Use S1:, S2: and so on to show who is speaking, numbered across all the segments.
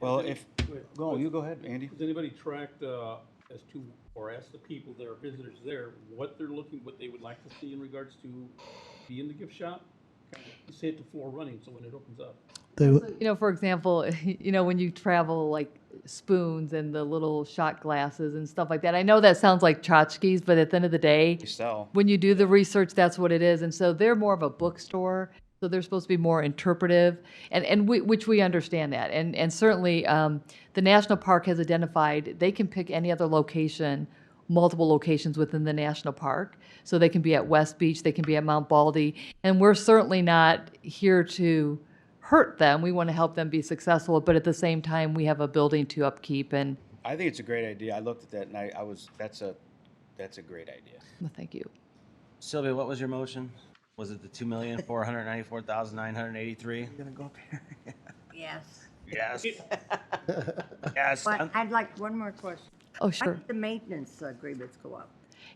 S1: Well, if,
S2: Wait,
S1: go, you go ahead, Andy.
S2: Has anybody tracked, uh, as to, or asked the people that are visitors there, what they're looking, what they would like to see in regards to be in the gift shop? You Say it to floor running, so when it opens up.
S3: They,
S4: You know, for example, you know, when you travel like spoons and the little shot glasses and stuff like that. I know that sounds like tchotchkes, but at the end of the day,
S1: They sell.
S4: when you do the research, that's what it is. And so they're more of a bookstore. So they're supposed to be more interpretive, and and we, which we understand that. And and certainly, um, the national park has identified they can pick any other location, multiple locations within the national park. So they can be at West Beach, they can be at Mount Baldy, and we're certainly not here to hurt them. We want to help them be successful, but at the same time, we have a building to upkeep. And
S1: I think it's a great idea. I looked at that and I, I was, that's a, that's a great idea.
S4: well, thank you.
S5: Sylvia, what was your motion? Was it the two million four hundred ninety-four thousand nine hundred eighty-three?
S6: Yes.
S5: Yes. Yes.
S6: But
S5: I'm-
S6: I'd like one more question.
S4: Oh,
S6: Why
S4: sure.
S6: did the maintenance agreements go up?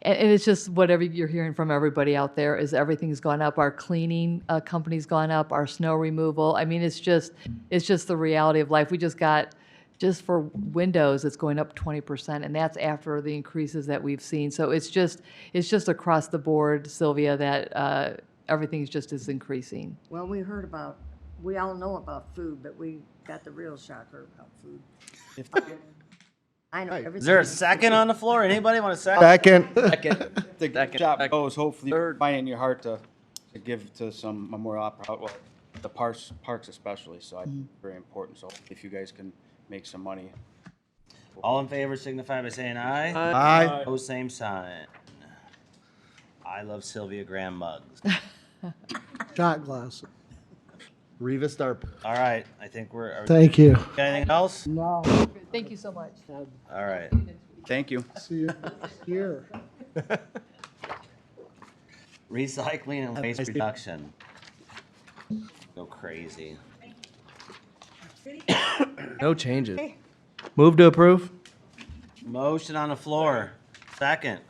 S4: And, and it's just whatever you're hearing from everybody out there is everything's gone up. Our cleaning uh, company's gone up. Our snow removal. I mean, it's just it's just the reality of life. We just got just for windows, it's going up 20%, and that's after the increases that we've seen. So it's just it's just across the board, Sylvia, that uh, everything's just is increasing.
S6: Well, we heard about, we all know about food, but we got the real shocker about food.
S1: If-
S6: I know everything.
S5: Is there a second on the floor? Anybody want a second?
S3: second.
S5: Second.
S1: The
S5: Second,
S1: gift shop
S5: second.
S1: goes, hopefully, you find it in your heart to, to give to some Memorial Opera, well, the parks, parks especially, so I think it's very important. So if you guys can make some money.
S5: All in favor signify by saying aye.
S3: Aye.
S5: Oh, same sign. I love Sylvia Graham mugs.
S3: Shot glass.
S7: Riva Starp.
S5: All right, I think we're, are we-
S3: Thank you.
S5: got anything else?
S4: Thank you so much.
S5: All right.
S1: Thank you.
S3: See you here.
S5: Recycling and waste
S7: nice day.
S5: reduction. Go crazy.
S7: No changes. Move to approve.
S5: Motion on the floor. Second.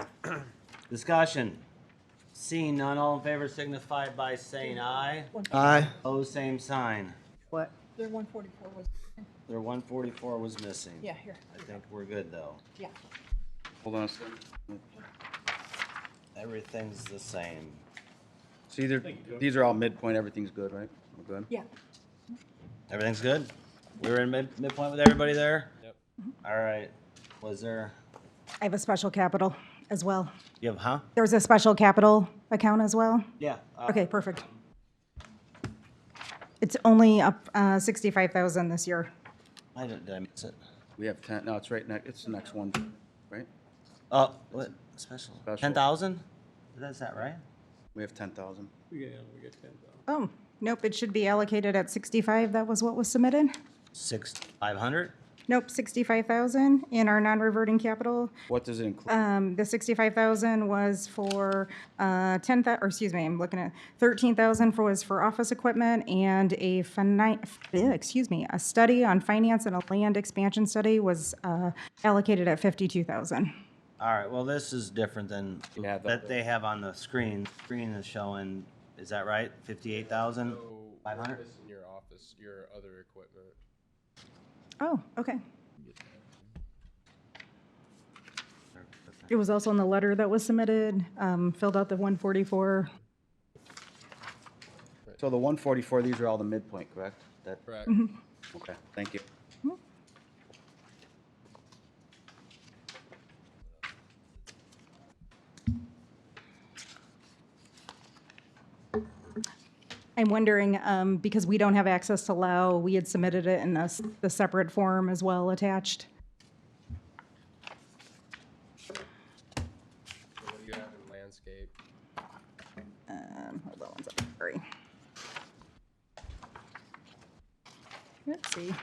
S5: Discussion. Seeing none, all in favor signify by saying aye.
S7: Aye.
S5: Oh, same sign.
S6: What?
S8: Their one forty-four was,
S5: Their one forty-four was missing.
S8: yeah, here,
S5: I think we're good, though.
S8: yeah.
S1: Hold on a second.
S5: Everything's the same.
S1: See, they're, these are all midpoint, everything's good, right? We're good?
S8: Yeah.
S5: Everything's good? We were in mid, midpoint with everybody there? Yep. All right. Was there,
S9: I have a special capital as well.
S5: you have, huh?
S9: There's a special capital account as well?
S5: Yeah. uh,
S9: Okay, perfect. It's only up uh, 65,000 this year.
S5: I didn't, did I miss it?
S1: We have ten, no, it's right next, it's the next one, right?
S5: Oh, what, special?
S1: Special.
S5: Ten thousand? Is that right?
S1: We have ten thousand.
S2: We get, we get ten thousand.
S9: Oh, nope, it should be allocated at 65, that was what was submitted?
S5: Six, five hundred?
S9: Nope, 65,000 in our non-reverting capital.
S1: What does it include?
S9: Um, The 65,000 was for uh, 10, thou- or excuse me, I'm looking at, 13,000 for- was for office equipment and a, fini- eh, excuse me, a study on finance and a land expansion study was uh, allocated at 52,000.
S5: All right, well, this is different than
S1: Yeah, the-
S5: that they have on the screen. Screen is showing, is that right? Fifty-eight thousand? Five hundred?
S10: in your office, your other equipment.
S9: Oh, okay. It was also in the letter that was submitted, um, filled out the 144.
S1: So the one forty-four, these are all the midpoint, correct? That,
S10: Correct.
S1: okay, thank you.
S9: I'm wondering, um, because we don't have access to Lao, we had submitted it in a s- the separate form as well attached.
S10: What do you have in landscape?
S9: Um, hold on one second, sorry. Let's see.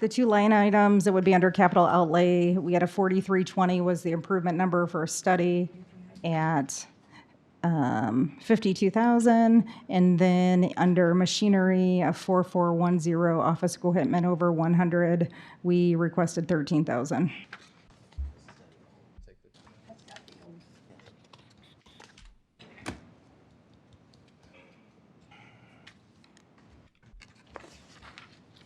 S9: The two line items that would be under capital outlay, we had a forty-three twenty was the improvement number for a study at um, fifty-two thousand, and then under machinery, a four-four-one-zero office equipment over one hundred, we requested thirteen thousand.